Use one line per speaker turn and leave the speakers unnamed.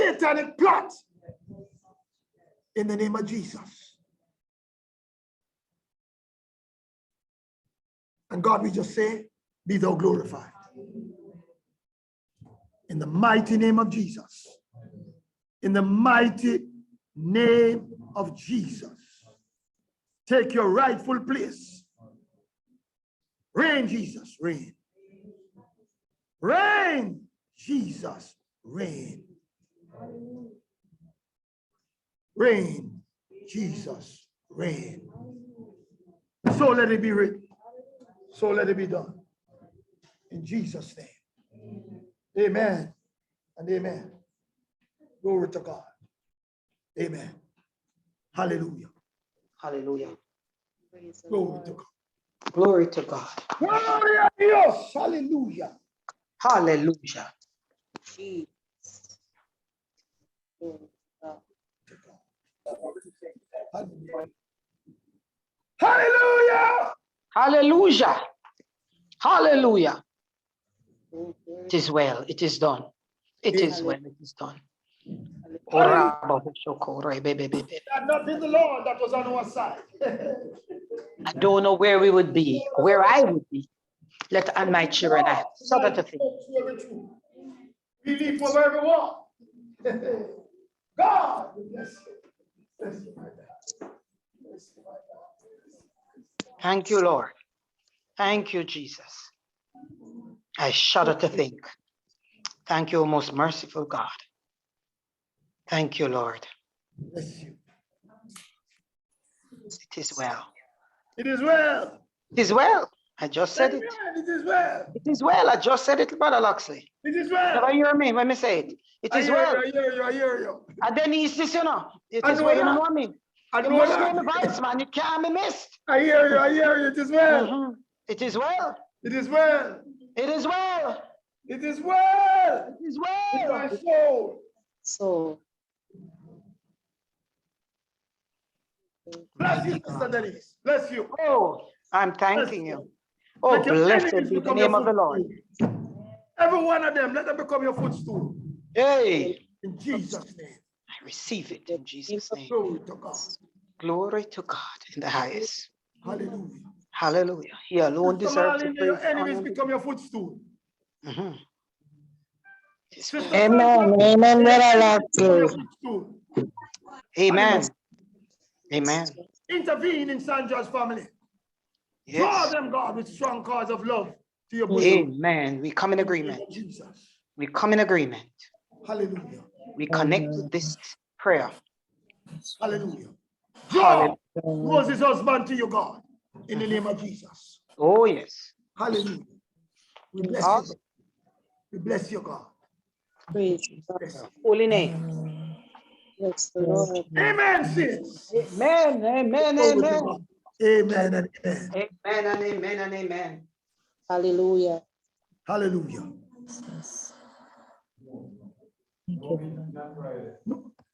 satanic plot in the name of Jesus. And God, we just say, be thou glorified. In the mighty name of Jesus. In the mighty name of Jesus. Take your rightful place. Reign, Jesus, reign. Reign, Jesus, reign. Reign, Jesus, reign. So let it be written. So let it be done. In Jesus' name. Amen and amen. Glory to God. Amen. Hallelujah.
Hallelujah.
Praise the
Glory to
Lord.
God.
Glory to God.
Gloria a Dios. Hallelujah.
Hallelujah.
Jesus. Glory to God.
to God. Hallelujah.
Hallelujah. Hallelujah.
Oh, glory
It is well. It is done. It is well. It is done.
Hallelujah.
I
That not in the Lord that was on our side.
don't know where we would be, where I would be. Let and my children I have Sabbath to think.
We leave for everyone. God bless you. Bless you, my God. Bless you, my God.
Thank you, Lord. Thank you, Jesus. I shudder to think. Thank you, most merciful God. Thank you, Lord.
Bless you.
It is well.
It is well.
It is well. I just said
Amen.
it.
It is well.
It is well. I just said it, Brother Loxley.
It is well.
Never hear me when me say it. It
I
is
hear
well.
you, I hear you. I hear you.
And then it's this, you know. It
I
is
know
well. You
that.
know what I mean?
I
You
know
must hear the
that.
voice, man. It can't be missed.
I hear you. I hear you. It is well.
Mhm. It is well.
It is well.
It is well.
It is well.
It is
With my
well.
soul.
So,
Bless you, Sister Denise. Bless you.
Oh, I'm thanking you. Oh,
Let your
blessed
enemies
be the
become your
name of the Lord.
footstool. Every one of them, let them become your footstool.
Hey,
In Jesus' name.
I receive it in Jesus' name.
Glory to God.
Glory to God in the highest.
Hallelujah.
Hallelujah. He alone
Sister
deserves the
Marlene, let your
praise. honor,
enemies
and-
become your footstool.
Mhm. It is
Sister
well.
Amen,
Sandra,
amen,
let your
brother
enemies become your
Loxley.
footstool.
Amen.
Hallelujah.
Amen.
Intervene in Sandra's family. Draw
Yes.
them, God, with strong cords of love to your bosom.
Amen. We come in
In the name
agreement.
of Jesus.
We come in agreement.
Hallelujah.
We connect
Amen.
with this prayer.
Hallelujah. Draw
Hallelujah.
Moses' husband to your God. In the name of Jesus.
Oh, yes.
Hallelujah. We bless you.
Awesome.
God. We bless you, God.
praise God.
Bless you.
Holy name.
Bless the Lord.
Amen, saints.
Amen. Amen.
Glory to
Amen.
God. Amen and amen.
Amen and amen and amen.
Hallelujah.
Hallelujah.
Thank you, Lord.
No,